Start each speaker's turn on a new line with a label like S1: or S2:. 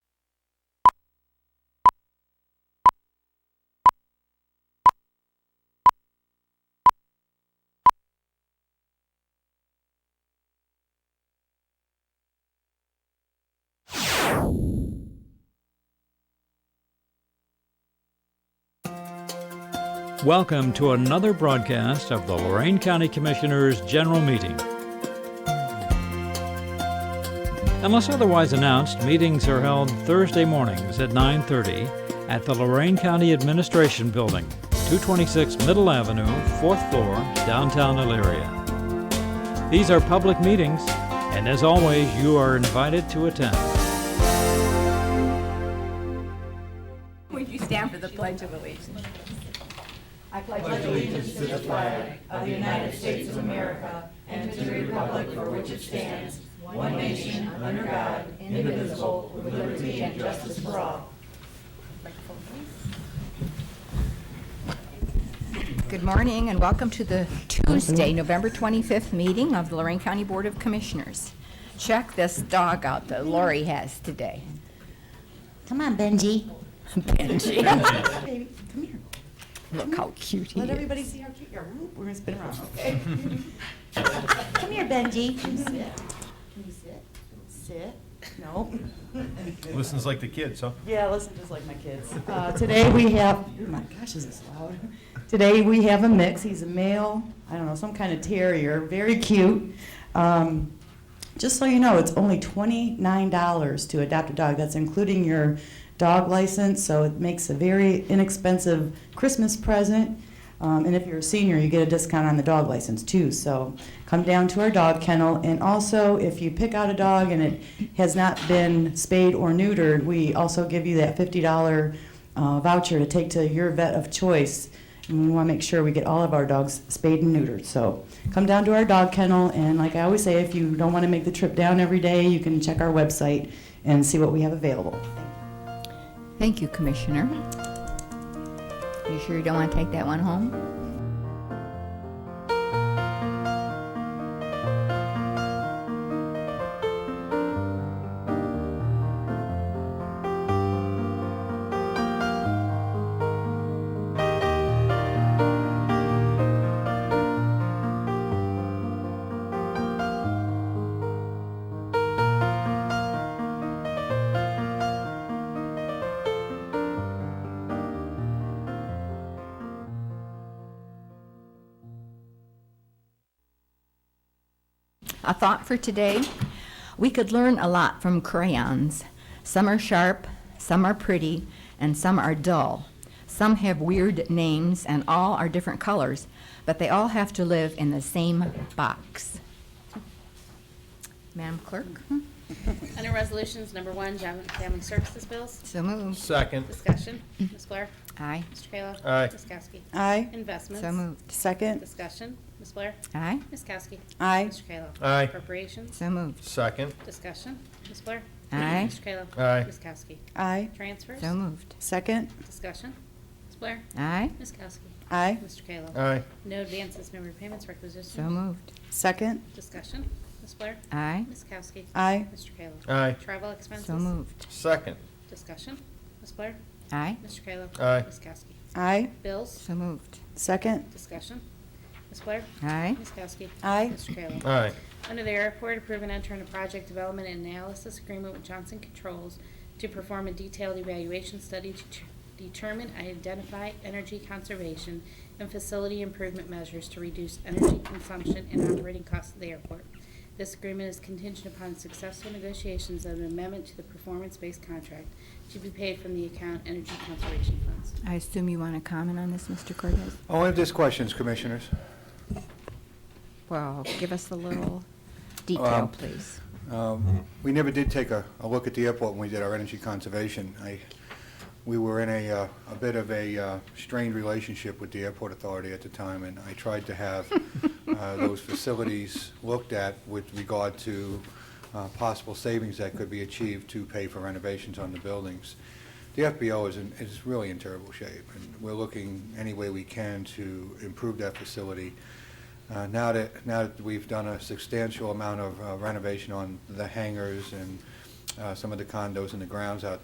S1: Welcome to another broadcast of the Lorraine County Commissioners' General Meeting. Unless otherwise announced, meetings are held Thursday mornings at 9:30 at the Lorraine County Administration Building, 226 Middle Avenue, 4th floor, downtown Elyria. These are public meetings, and as always, you are invited to attend.
S2: Would you stand for the Pledge of Allegiance? Good morning and welcome to the Tuesday, November 25th meeting of the Lorraine County Board of Commissioners. Check this dog out that Lori has today.
S3: Come on, Benji.
S4: Baby, come here.
S2: Look how cute he
S4: Let
S2: is.
S4: everybody see how cute you are. Whoop, We're gonna spin around.
S3: Come here, Benji.
S4: Can you sit? Can you sit? Sit? No.
S5: Listens like the kids, huh?
S4: Yeah, listen, just like my kids. Uh, Today we have, oh my gosh, is this loud? Today we have a mix. He's a male, I don't know, some kind of terrier, very cute. Um, Just so you know, it's only $29 to adopt a dog. That's including your dog license, so it makes a very inexpensive Christmas present. Um, And if you're a senior, you get a discount on the dog license too. So come down to our dog kennel. And also, if you pick out a dog and it has not been spayed or neutered, we also give you that $50 uh, voucher to take to your vet of choice. And we want to make sure we get all of our dogs spayed and neutered. So come down to our dog kennel. And like I always say, if you don't want to make the trip down every day, you can check our website and see what we have available.
S2: Thank you, Commissioner. You sure you don't want to take that one home? A thought for today. We could learn a lot from crayons. Some are sharp, some are pretty, and some are dull. Some have weird names and all are different colors, but they all have to live in the same box. Madam Clerk,
S6: Under Resolutions Number One, Job and Family Services Bills,
S2: so moved.
S5: Second.
S6: discussion, Ms. Blair,
S2: Aye.
S6: Mr. Kayla.
S5: Aye.
S6: Ms. Kowski.
S4: Aye.
S6: Investments.
S2: So moved.
S4: Second.
S6: Discussion, Ms. Blair,
S2: Aye.
S6: Ms. Kowski.
S4: Aye.
S6: Mr. Kayla.
S5: Aye.
S6: Appropriations,
S2: So moved.
S5: Second.
S6: discussion, Ms. Blair.
S2: Aye.
S6: Mr. Kayla.
S5: Aye.
S6: Ms. Kowski.
S4: Aye.
S6: Transfers,
S2: So moved.
S4: Second.
S6: discussion, Ms. Blair,
S2: Aye.
S6: Ms. Kowski.
S4: Aye.
S6: Mr. Kayla.
S5: Aye.
S6: No advances, no repayments,
S2: So
S6: requisitions,
S2: moved.
S4: Second.
S6: discussion, Ms. Blair,
S2: Aye.
S6: Ms. Kowski.
S4: Aye.
S6: Mr. Kayla.
S5: Aye.
S6: Travel expenses.
S2: So moved.
S5: Second.
S6: Discussion, Ms. Blair,
S2: Aye.
S6: Mr. Kayla.
S5: Aye.
S6: Ms. Kowski.
S4: Aye.
S6: Bills,
S2: So moved.
S4: Second.
S6: Discussion. Ms. Blair?
S2: Aye.
S6: Ms. Kowski?
S4: Aye.
S6: Mr. Kayla?
S5: Aye.
S6: Under the airport, approve and enter into project development and analysis agreement with Johnson Controls to perform a detailed evaluation study to t- determine and identify energy conservation and facility improvement measures to reduce energy consumption and operating costs of the airport. This agreement is contingent upon successful negotiations of an amendment to the performance-based contract to be paid from the account Energy Conservation Funds.
S2: I assume you want to comment on this, Mr. Cortez?
S7: Only if there's questions, Commissioners.
S2: Well, give us a little detail,
S7: Um,
S2: please.
S7: Um, We never did take a, a look at the airport when we did our energy conservation. I, we were in a, uh, a bit of a uh, strained relationship with the airport authority at the time, and I tried to have uh, those facilities looked at with regard to uh, possible savings that could be achieved to pay for renovations on the buildings. The FBO is, in- is really in terrible shape, and we're looking any way we can to improve that facility. Uh, Now that, now that we've done a substantial amount of uh, renovation on the hangars and uh, some of the condos and the grounds out